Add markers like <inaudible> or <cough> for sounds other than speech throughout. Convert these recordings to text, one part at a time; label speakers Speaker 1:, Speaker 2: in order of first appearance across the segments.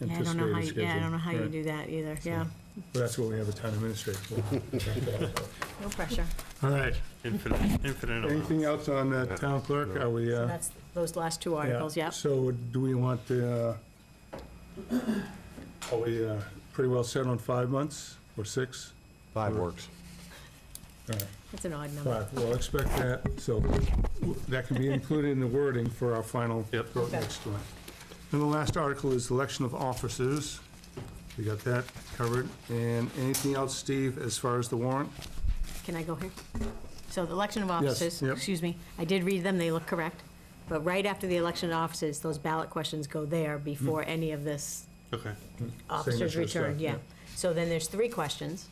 Speaker 1: Yeah, I don't know how,
Speaker 2: anticipated
Speaker 1: you-
Speaker 2: schedule.
Speaker 1: yeah, I don't know how you
Speaker 2: Right.
Speaker 1: do that either, yeah.
Speaker 2: But that's what we have a town administrator <laughs> for.
Speaker 1: No pressure.
Speaker 2: All right,
Speaker 3: Infinite, infinite amount.
Speaker 2: anything else on the town clerk? Are we, uh?
Speaker 1: That's those last two articles,
Speaker 2: Yeah.
Speaker 1: yep.
Speaker 2: So do we want to, are we uh, pretty well set on five months or six?
Speaker 4: Five works.
Speaker 2: All right,
Speaker 1: That's an odd number.
Speaker 2: Five, we'll expect that, so w- that can be included in the wording for our final
Speaker 3: Yep.
Speaker 2: vote next time. And the last article is election of officers. We got that covered. And anything else, Steve, as far as the warrant?
Speaker 1: Can I go here? So the election of
Speaker 2: Yes,
Speaker 1: officers,
Speaker 2: yep.
Speaker 1: excuse me, I did read them, they look correct. But right after the election of officers, those ballot questions go there before any of this
Speaker 3: Okay.
Speaker 1: officers
Speaker 2: Signature
Speaker 1: returned,
Speaker 2: Mm. stuff,
Speaker 1: yeah.
Speaker 2: yeah. Mm-hmm.
Speaker 1: So then there's three questions.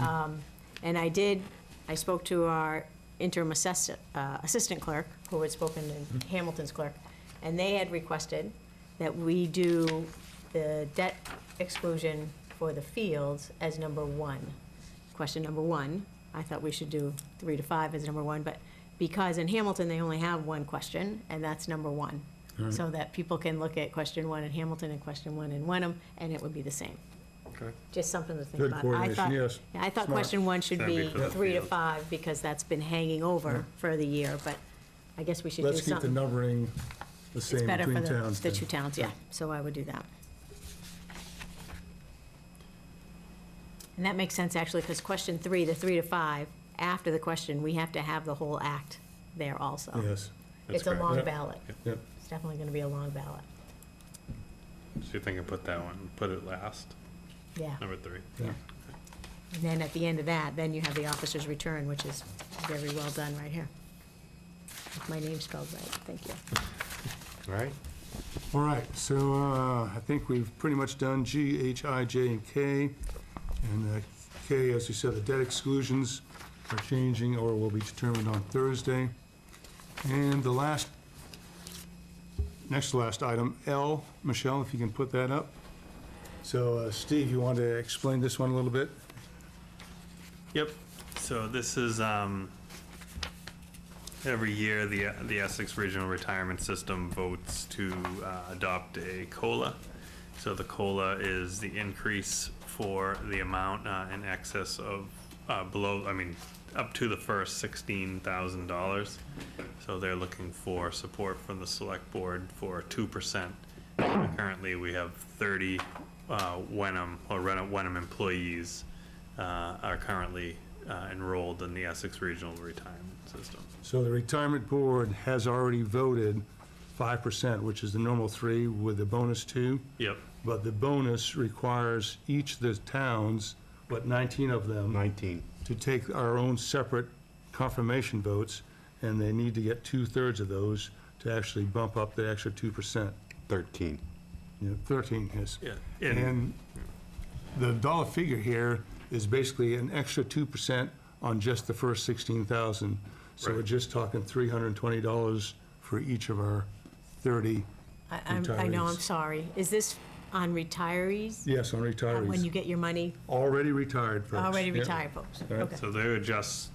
Speaker 1: Um, And I did, I spoke to our interim assess- uh, assistant clerk, who had spoken
Speaker 2: Mm-hmm.
Speaker 1: to Hamilton's clerk, and they had requested that we do the debt exclusion for the fields as number one. Question number one, I thought we should do three to five as number one, but because in Hamilton, they only have one question, and that's number one. So that people can look at question one in Hamilton and question one in Wenham, and it would be the same.
Speaker 3: Okay.
Speaker 1: Just something to think
Speaker 2: Good
Speaker 1: about. I
Speaker 2: coordination,
Speaker 1: thought-
Speaker 2: yes.
Speaker 1: yeah, I thought
Speaker 2: Smart.
Speaker 1: question one should
Speaker 3: That'd be
Speaker 1: be
Speaker 3: for the
Speaker 1: three to
Speaker 3: field.
Speaker 1: five, because that's been hanging over for the year, but I guess we should do
Speaker 2: Let's keep the
Speaker 1: something.
Speaker 2: numbering the
Speaker 1: It's
Speaker 2: same
Speaker 1: better for
Speaker 2: between
Speaker 1: the,
Speaker 2: towns.
Speaker 1: the
Speaker 2: then.
Speaker 1: two towns, yeah, so I would do that. And that makes sense, actually, because question three, the three to five, after the question, we have to have the whole act there also.
Speaker 2: Yes,
Speaker 3: That's
Speaker 1: It's a
Speaker 3: correct.
Speaker 1: long
Speaker 2: Yeah.
Speaker 1: ballot.
Speaker 2: yep.
Speaker 1: It's definitely gonna be a long ballot,
Speaker 3: So you think I put that one, put it last,
Speaker 1: yeah.
Speaker 3: number three?
Speaker 2: yeah.
Speaker 1: And then at the end of that, then you have the officer's return, which is very well done right here. With My name spelled right, thank you.
Speaker 4: All right.
Speaker 2: All right, so uh, I think we've pretty much done G, H, I, J, and K. And uh, K, as you said, the debt exclusions are changing or will be determined on Thursday. And the last, next to last item, L, Michelle, if you can put that up. So uh, Steve, you want to explain this one a little bit?
Speaker 3: Yep, so this is, um, every year, the, the Essex Regional Retirement System votes to uh, adopt a COLA. So the COLA is the increase for the amount uh, in excess of, uh, below, I mean, up to the first sixteen thousand dollars. So they're looking for support from the select board for two percent. Currently, we have thirty, uh, Wenham, or Ren- Wenham employees, uh, are currently, uh, enrolled in the Essex Regional Retirement System.
Speaker 2: So the retirement board has already voted 5%, which is the normal three with the bonus two.
Speaker 3: Yep,
Speaker 2: But the bonus requires each of the towns, what, 19 of them,
Speaker 4: 19.
Speaker 2: to take our own separate confirmation votes, and they need to get two-thirds of those to actually bump up the extra 2%.
Speaker 4: 13.
Speaker 2: You know, 13 is.
Speaker 3: yeah.
Speaker 2: And the dollar figure here is basically an extra 2% on just the first 16,000. So we're
Speaker 3: Right.
Speaker 2: just talking $320 for each of our 30,
Speaker 1: I, I'm, I know, I'm
Speaker 2: Retirees.
Speaker 1: sorry. Is this on retirees?
Speaker 2: yes, on
Speaker 1: Uh, When you
Speaker 2: retirees.
Speaker 1: get your money,
Speaker 2: Already retired folks.
Speaker 1: already
Speaker 2: Yeah.
Speaker 1: retired folks?
Speaker 2: right.
Speaker 1: Okay,
Speaker 3: So they adjust,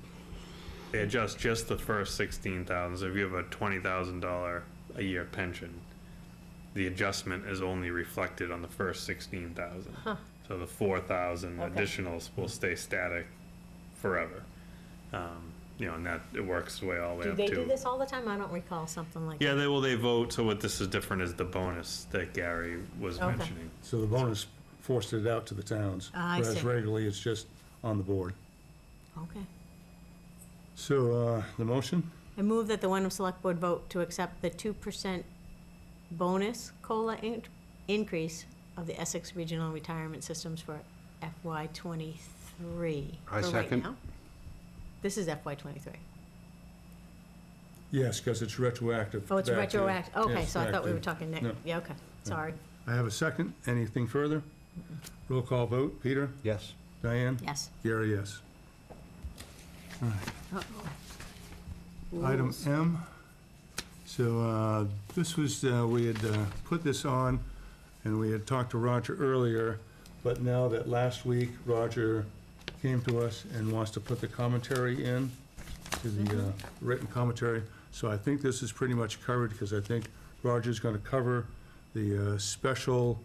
Speaker 3: they adjust just the first sixteen thousand, if you have a twenty thousand dollar a year pension, the adjustment is only reflected on the first sixteen thousand. So the four thousand
Speaker 1: Okay.
Speaker 3: additionals will stay static forever. Um, you know, and that, it works the way all the way
Speaker 1: Do
Speaker 3: up
Speaker 1: they
Speaker 3: to.
Speaker 1: do this all the time? I don't recall something like that.
Speaker 3: Yeah, they, well, they vote, so what this is different is the bonus that Gary was
Speaker 1: Okay.
Speaker 3: mentioning.
Speaker 2: So the bonus forced it out to the towns.
Speaker 1: Ah, I
Speaker 2: Whereas
Speaker 1: see.
Speaker 2: regularly, it's just on the board.
Speaker 1: Okay.
Speaker 2: So uh, the motion,
Speaker 1: I move that the Wenham Select Board vote to accept the two percent bonus COLA in- increase of the Essex Regional Retirement Systems for FY twenty-three.
Speaker 4: I
Speaker 1: for right
Speaker 4: second.
Speaker 1: now. This is FY twenty-three.
Speaker 2: yes, because it's retroactive.
Speaker 1: Oh, it's
Speaker 2: back to-
Speaker 1: retroactive, okay,
Speaker 2: yes,
Speaker 1: so I
Speaker 2: back
Speaker 1: thought we
Speaker 2: to-
Speaker 1: were talking next,
Speaker 2: No.
Speaker 1: yeah, okay, sorry,
Speaker 2: I have a second. Anything further? Roll call vote. Peter?
Speaker 4: Yes.
Speaker 2: Diane?
Speaker 1: yes.
Speaker 2: Gary, yes. Item M. So uh, this was, uh, we had uh, put this on, and we had talked to Roger earlier, but now that last week Roger came to us and wants to put the commentary in, to the uh, written commentary, so I think this is pretty much covered, because I think Roger's going to cover the uh, special